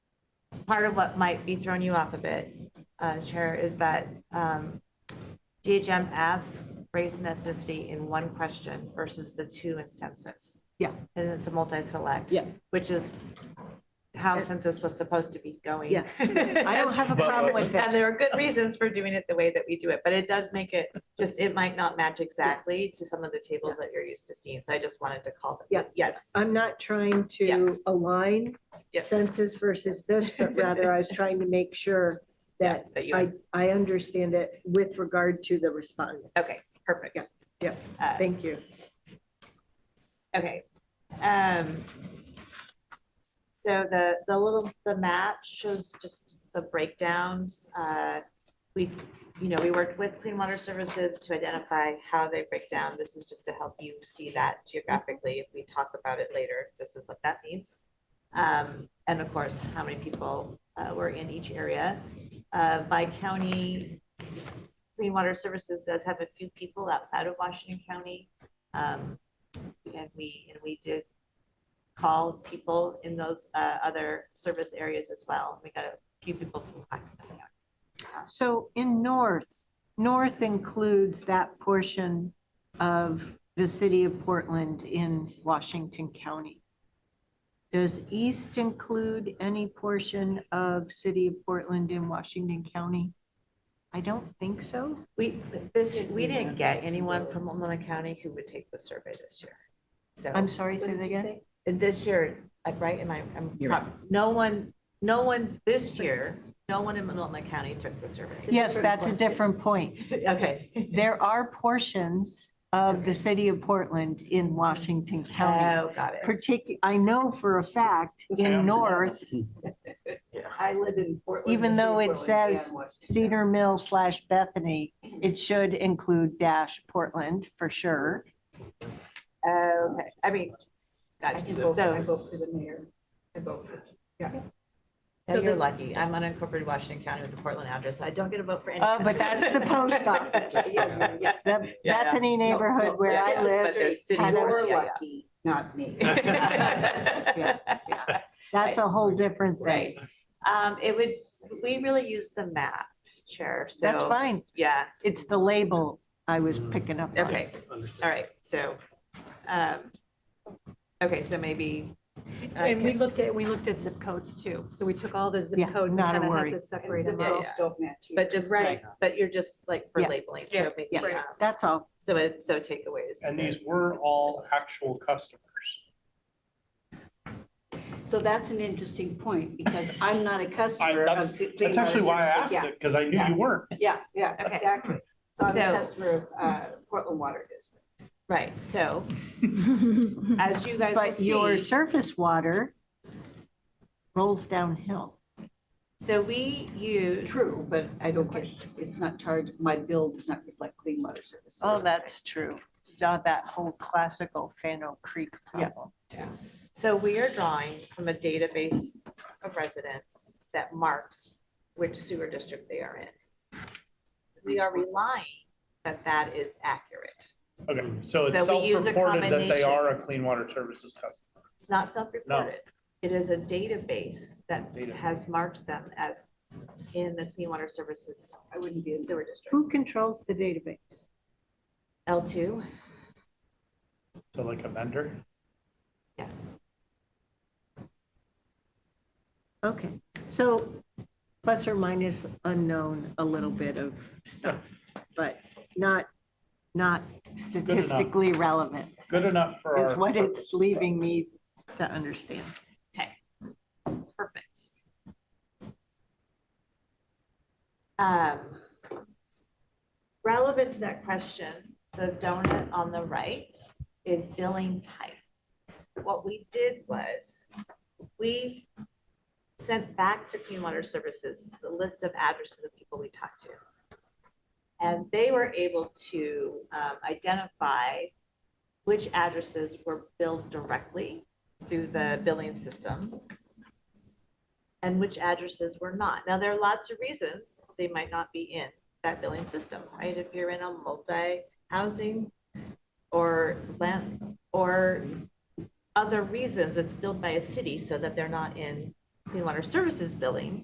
part of what might be throwing you off a bit, uh, Chair, is that um, DHM asks race and ethnicity in one question versus the two in census. Yeah. And it's a multi-select. Yeah. Which is how census was supposed to be going. Yeah. I don't have a But- problem with And that. there are good reasons for doing it the way that we do it, but it does make it, just, it might not match exactly to some of the tables that you're used to seeing. So I just wanted to call Yeah. them. Yes, I'm not trying to align yes. census versus this, but rather I was trying to make sure that That you, I, I understand it with regard to the respondent. okay, perfect. Yeah, yeah. Uh, Thank you. Okay. Um, so the, the little, the map shows just the breakdowns. Uh, we, you know, we worked with Clean Water Services to identify how they break down. This is just to help you see that geographically. If we talk about it later, this is what that means. Um, and of course, how many people, uh, were in each area. Uh, by county, Clean Water Services does have a few people outside of Washington County. Um, and we, and we did call people in those uh, other service areas as well. We got a few people from Clackamas County. So in north, north includes that portion of the city of Portland in Washington County. Does east include any portion of city of Portland in Washington County? I don't think so. We, this, we didn't get anyone from Multnomah County who would take the survey this year. So I'm sorry, say that again? this year, like, right, am I, I'm, no one, no one, this year, no one in Multnomah County took the survey. Yes, that's a different point. Okay. There are portions of the city of Portland in Washington County. Oh, got it. Particular, I know for a fact Yeah. in north, I live in Portland. Even the city though of it Portland, says and Washington. Cedar Mill slash Bethany, it should include dash Portland for sure. Okay, I mean, I got can you. vote, I So, vote for the mayor. I vote for. so you're lucky. I'm unincorporated Washington County with the Portland address. I don't get a vote for anything. Oh, but that's the post office. Yeah, yeah. The yeah. Bethany neighborhood where yeah, I yeah. live, But there's city- and You're yeah, yeah. lucky, not me. that's a whole different thing. Right. Um, it would, we really use the map, Chair, so. That's fine. Yeah, It's the label I was picking up on. okay, all right, so, um, okay, so maybe. uh, And we looked at, we looked at zip codes too. So we took all the zip Yeah, codes and not a kind of worry. had to separate them Yeah, out. yeah. Don't match you. But just, Right. just- but you're just like for Yeah. labeling. so Yeah, maybe, yeah. um, That's all. So it, so takeaways. And these were all actual customers. So that's an interesting point because I'm not a I, customer of. that's, Clean that's Water actually why I Services. asked Yeah, it, because I knew you weren't. Yeah, yeah, Okay. exactly. So I'm So- a customer of uh, Portland Water District. Right, so as you guys But will your see, surface water rolls downhill. so we use. True, but I don't get, it's not charged, my bill does not reflect Clean Water Services. Oh, that's true. Saw that whole classical Fano Creek Yeah. problem. Yes. So we are drawing from a database of residents that marks which sewer district they are in. We are relying that that is accurate. Okay, so it's So we use a self-reported that they combination. are a Clean Water Services customer. It's not self-reported. It is a database that Database. has marked them as in the Clean Water Services I wouldn't be in Sewer District. Who controls the database? L2? So like a vendor? Yes. Okay, so plus or minus unknown, a little bit of stuff, but not, not enough. statistically relevant Good enough for our. is what purpose. it's leaving me to understand. Perfect. Um, Relevant to that question, the donut on the right is billing type. What we did was, we sent back to Clean Water Services the list of addresses of people we talked to. And they were able to um, identify which addresses were billed directly through the billing system and which addresses were not. Now, there are lots of reasons they might not be in that billing system, right? If you're in a multi-housing or land, or other reasons, it's billed by a city so that they're not in clean water services billing.